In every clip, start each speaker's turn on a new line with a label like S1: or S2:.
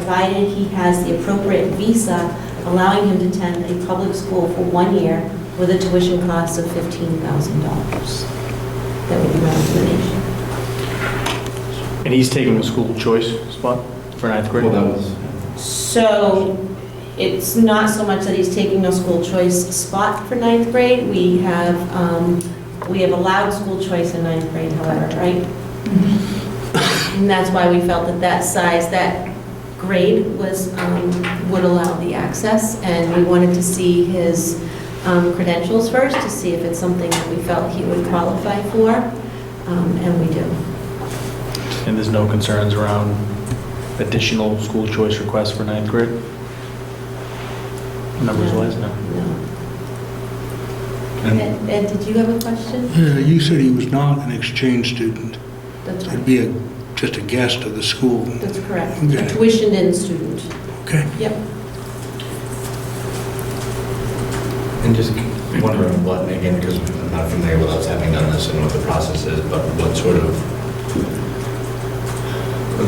S1: provided he has the appropriate visa allowing him to attend a public school for one year with a tuition cost of $15,000. That would be my recommendation.
S2: And he's taking the school choice spot for ninth grade?
S3: Well, that was,
S1: So it's not so much that he's taking a school choice spot for ninth grade. We have, um, we have allowed school choice in ninth grade, however, right? And that's why we felt that that size, that grade was, um, would allow the access. And we wanted to see his um, credentials first, to see if it's something that we felt he would qualify for. Um, And we do.
S2: And there's no concerns around additional school choice requests for ninth grade? Numbers wise, no.
S1: No.
S3: and
S1: Ed, Ed, did you have a question?
S4: Yeah, You said he was not an exchange student.
S1: That's right.
S4: He'd be a- just a guest of the school.
S1: That's correct.
S4: Okay.
S1: A tuitioned-in student.
S4: Okay.
S1: Yep.
S3: and just wondering what, again, because I'm not familiar with us having done this and what the process is, but what sort of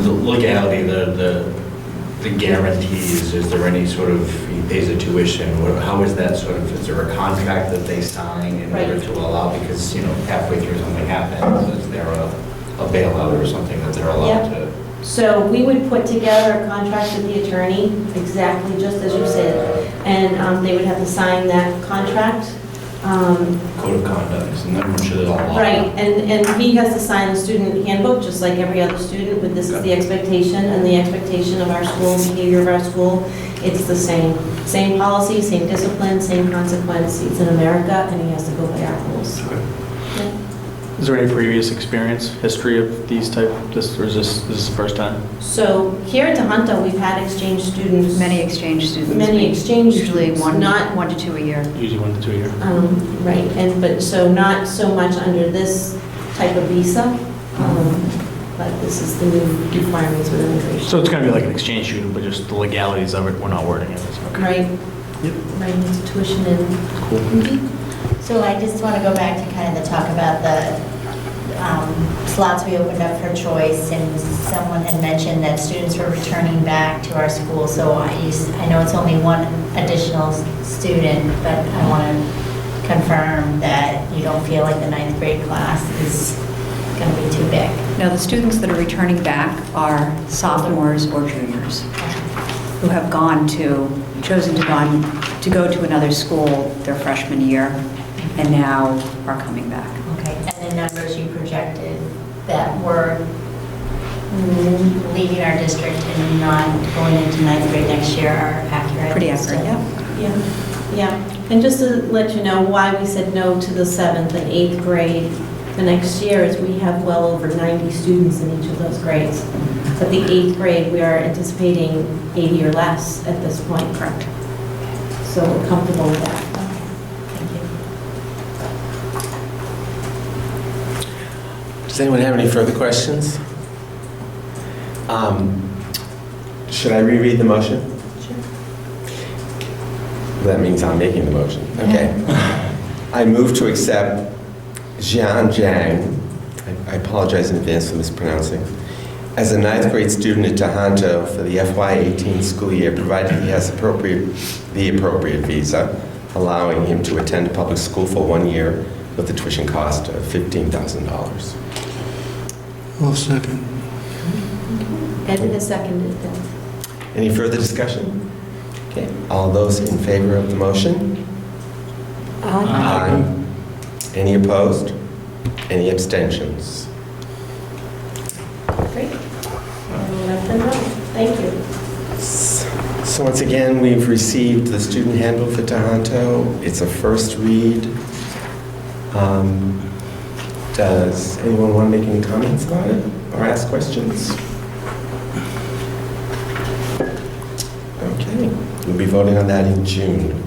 S3: the legality, the, the the guarantees, is there any sort of, he pays a tuition, what- how is that sort of, is there a contract that they sign in order
S1: Right.
S3: to allow, because, you know, halfway through something happens, is there a a bailout or something that they're allowed
S1: Yeah.
S3: to?
S1: So we would put together a contract with the attorney, exactly just as you said, and um, they would have to sign that contract. Um,
S3: Code of conduct, and I'm sure there's a lot.
S1: Right, and, and he has to sign the student handbook, just like every other student, with this is the expectation and the expectation of our school, behavior of our school. It's the same, same policy, same discipline, same consequence. He's in America, and he has to go by our rules. Yeah.
S2: Is there any previous experience, history of these type, this, or is this, this is the first time?
S1: So here at Tohoto, we've had exchange students.
S5: Many exchange students.
S1: Many exchange
S5: Usually
S1: students,
S5: one,
S1: not-
S5: one to two a year.
S2: Usually one to two a year.
S1: Um, Right, and, but, so not so much under this type of visa, um, but this is the new requirements with immigration.
S2: So it's gonna be like an exchange student, but just the legalities of it, we're not wording it. It's okay.
S1: Right?
S2: Yep.
S1: Right, it's tuition Mm-hmm. and.
S2: Cool.
S6: So I just want to go back to kind of the talk about the um, slots we opened up for choice, and someone had mentioned that students were returning back to our school, so I s- I know it's only one additional s- student, but I want to confirm that you don't feel like the ninth grade class is going to be too big.
S5: Now, the students that are returning back are sophomores or juniors who have gone to, chosen to gone, to go to another school their freshman year and now are coming back.
S6: Okay, and the numbers you projected that were mm, leaving our district and not going into ninth grade next year are accurate?
S5: Pretty accurate, yeah.
S1: Yeah, yeah. And just to let you know why we said no to the seventh and eighth grade the next year is we have well over 90 students in each of those grades. But the eighth grade, we are anticipating 80 or less at this point. Correct. So we're comfortable with that.
S6: Thank you.
S7: Does anyone have any further questions? Um, Should I reread the motion? That means I'm making the motion. Okay. I move to accept Jian Zhang, I- I apologize in advance for mispronouncing, as a ninth grade student at Tohoto for the FY18 school year, provided he has appropriate, the appropriate visa, allowing him to attend a public school for one year with a tuition cost of $15,000.
S4: I'll second.
S1: Ed has seconded that.
S7: Any further discussion? Okay, all those in favor of the motion?
S3: Uh,
S7: Aye. Any opposed? Any abstentions?
S1: Great. And let them know. Thank you.
S7: So once again, we've received the student handbook for Tohoto. It's a first read. Um, Does anyone want to make any comments about it or ask questions? Okay, we'll be voting on that in June.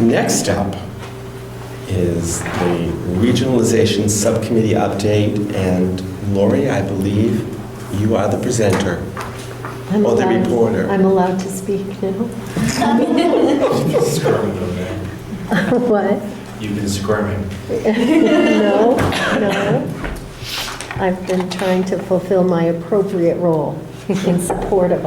S7: Next up is the Regionalization Subcommittee update, and Lori, I believe you are the presenter
S8: I'm
S7: or the
S8: allowed-
S7: reporter.
S8: I'm allowed to speak now.
S3: Squirming over there.
S8: What?
S3: You've been squirming.
S8: No, no. I've been trying to fulfill my appropriate role in support of